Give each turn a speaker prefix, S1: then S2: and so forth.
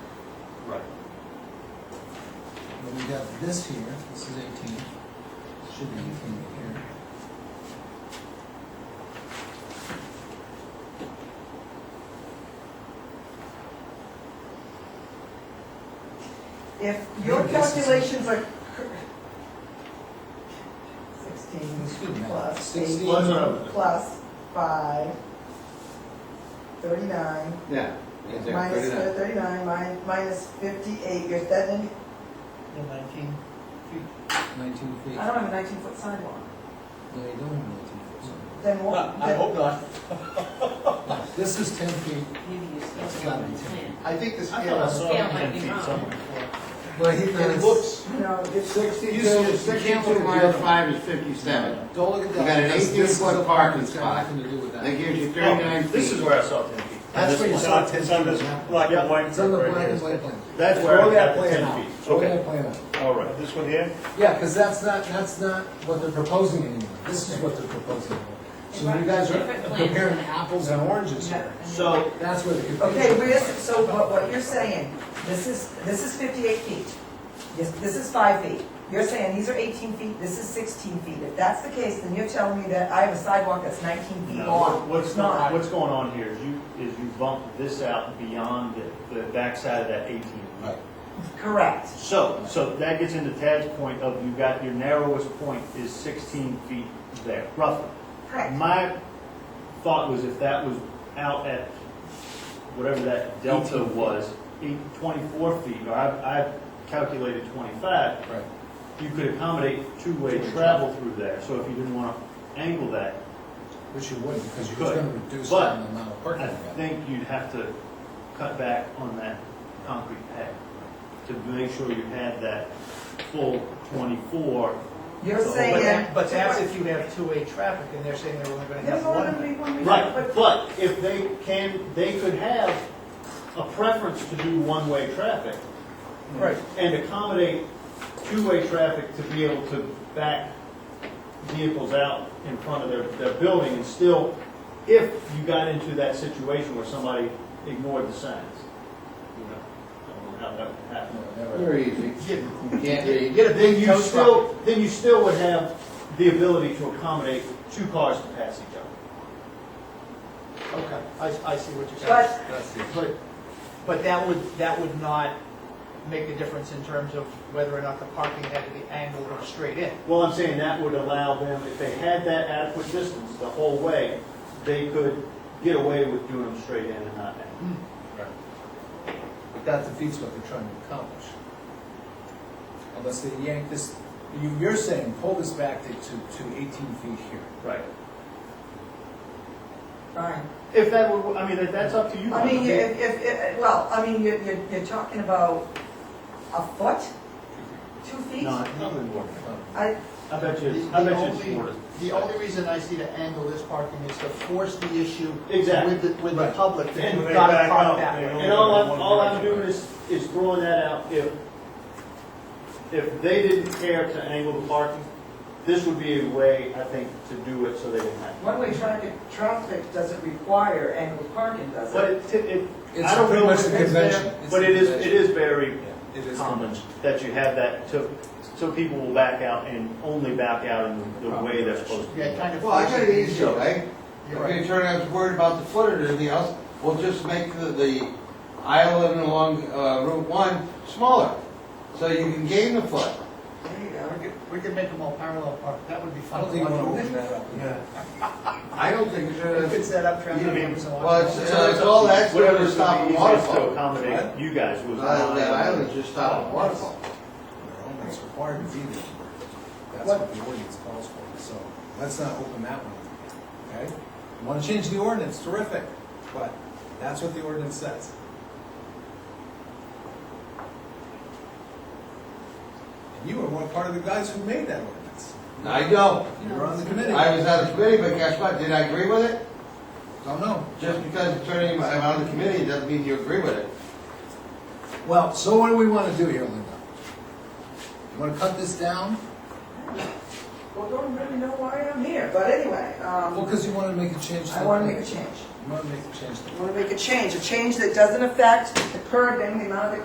S1: got this here, this is eighteen, should be eighteen here.
S2: If your
S1: Yeah, this is-
S2: calculations are cor- sixteen plus
S1: Sixteen.
S2: eight plus five, thirty-nine,
S3: Yeah. yeah, yeah,
S2: minus
S3: 39.
S2: thirty-nine, min- minus fifty-eight, you're, that, then,
S4: nineteen feet.
S1: Nineteen feet.
S2: I don't have a nineteen-foot sidewalk.
S1: No, you don't have nineteen feet. so-
S2: Then what?
S4: I hope not.
S1: This is ten feet,
S5: Maybe you still
S1: That's
S5: have
S1: gotta be
S5: a plan.
S3: I think the
S4: I thought I
S3: scale,
S4: saw
S5: Scale might
S4: ten
S5: be
S4: feet
S5: wrong.
S4: somewhere.
S1: but he
S3: it
S1: thinks,
S3: looks
S2: No, it's,
S3: sixty-two,
S1: You said- you can't look
S3: sixty-two,
S1: wide.
S3: zero five is fifty-seven.
S1: don't look at that.
S3: You got an
S1: because
S3: 18
S1: this is
S3: foot
S1: the
S3: parking
S1: that's got
S3: spot.
S1: Nothing to do with that.
S3: That gives you thirty-nine
S4: Oh,
S3: feet.
S4: This is where I saw ten feet.
S3: That's where you
S4: It's
S3: saw
S4: on-
S3: 10
S4: It's on
S3: feet.
S4: this black
S3: Yeah.
S4: and white.
S1: It's on the
S4: right here.
S1: black and white plan.
S4: That's
S3: It's
S4: where I
S3: only
S4: got
S3: that
S4: the
S3: plan
S4: ten
S3: out.
S4: feet.
S1: It's only
S4: Okay,
S1: a plan.
S4: all right. This one here?
S1: Yeah, because that's not, that's not what they're proposing anymore, this is what they're proposing. anymore. So you guys are
S5: Different plans.
S1: comparing apples and oranges here,
S4: So,
S1: that's where the confusion.
S2: okay, we're, so what, what you're saying, this is, this is fifty-eight feet. This, this is five feet. You're saying these are eighteen feet, this is sixteen feet. If that's the case, then you're telling me that I have a sidewalk that's nineteen feet long.
S6: What's
S2: It's not.
S6: going, what's going on here is you, is you bump this out beyond the, the backside of that eighteen.
S1: Right.
S2: Correct.
S6: So, so that gets into Tad's point of you got, your narrowest point is sixteen feet there, roughly.
S2: Correct.
S6: My thought was if that was out at whatever that delta was, eight- twenty-four feet, or I, I calculated twenty-five,
S1: Right.
S6: you could accommodate two-way
S1: Two-way
S6: travel through there, so if you didn't want to angle that,
S1: Which you wouldn't, because you're just
S6: Could.
S1: gonna reduce the
S6: But
S1: amount of parking.
S6: I
S1: you got.
S6: think you'd have to cut back on that concrete pad to make sure you had that full twenty-four.
S2: You're
S6: So,
S4: but
S2: saying.
S4: that- but that's if you have two-way traffic and they're saying they're only gonna
S2: There's
S4: have
S2: only
S4: one.
S2: gonna be one way.
S6: Right,
S2: But-
S6: but if they can, they could have a preference to do one-way traffic
S4: Right.
S6: and accommodate two-way traffic to be able to back vehicles out in front of their, their building and still, if you got into that situation where somebody ignored the signs, you know, I don't know how that would happen.
S1: No, never.
S3: Very easy. You can't read.
S4: Get a
S6: Then
S4: big
S6: you
S4: tow truck.
S6: still, then you still would have the ability to accommodate two cars to pass each other.
S4: Okay, I, I see what you're
S2: But-
S4: saying. But, but that would, that would not make a difference in terms of whether or not the parking had to be angled or straight in.
S6: Well, I'm saying that would allow them, if they had that adequate distance the whole way, they could get away with doing them straight in and not out.
S1: But that defeats what they're trying to accomplish. Unless they yank this, you, you're saying pull this back to, to to eighteen feet here.
S6: Right.
S2: Fine.
S6: If that were, I mean, that- that's up to you.
S2: I mean, if, if, if, well, I mean, you're, you're, you're talking about a foot, two feet?
S6: No, it's not gonna work.
S2: I,
S6: I bet you,
S4: The-
S6: I
S4: the
S6: bet you
S4: only-
S6: it's worse.
S4: The only reason I see to angle this parking is to force the issue
S6: Exactly.
S4: with the, with the
S1: Right.
S4: public, that
S6: And
S4: you've
S6: they
S4: got
S6: back
S4: to
S6: out,
S4: park that
S6: they
S4: way.
S6: And all I'm, all I'm doing is, is throwing that out, if, if they didn't care to angle the parking, this would be a way, I think, to do it so they didn't have. to.
S2: one-way traffic, traffic doesn't require angled parking, does
S6: But
S2: it?
S6: it, it,
S1: It's
S6: I don't
S1: pretty
S6: know
S1: much
S6: if
S1: the
S6: it's there,
S1: convention. It's
S6: But
S1: the
S6: it is, it
S1: convention.
S6: is very
S1: Yeah, It is
S6: common
S1: convention.
S6: that you have that, so, so people will back out and only back out in the way they're supposed to.
S4: Yeah, kind of.
S3: Well, I
S4: force
S3: got
S4: it
S3: it easy,
S4: to-
S3: right? If
S4: You're right.
S3: the attorney was worried about the foot or anything else, we'll just make the, the aisle and along, uh, Route one smaller. So you can gain the foot.
S2: There you
S4: We
S2: go.
S4: could- We could make them all parallel park, that would be
S1: I
S4: fun.
S1: don't think you wanna open that up.
S3: I don't think
S4: We
S3: it's,
S4: could set up traffic.
S6: I mean,
S4: jams along
S3: well,
S4: the way.
S3: it's, uh, it's all that's doing
S6: Whatever's
S3: is
S6: gonna
S3: stopping
S6: be easiest to
S3: waterfall.
S6: accommodate you guys was.
S3: Uh, that island's just stopping waterfall.
S1: It's required to be there. That's what the ordinance calls for, so let's not open that one up again, okay? Want to change the ordinance, terrific, but that's what the ordinance says. And you were one part of the guys who made that ordinance.
S3: I know.
S1: You were on the committee.
S3: I was on the committee, but guess what? Did I agree with it?
S1: Don't know.
S3: Just because attorney, I'm on the committee, doesn't mean you agree with it.
S1: Well, so what do we want to do here, Linda? You want to cut this down?
S2: Well, don't really know why I'm here, but anyway,
S1: Well,
S2: um,
S1: because you want to make a change. to
S2: I
S1: the
S2: wanna
S1: plan.
S2: make a change.
S1: You want to make a change. to the
S2: I wanna make a change, a change that doesn't affect the curbing, the amount of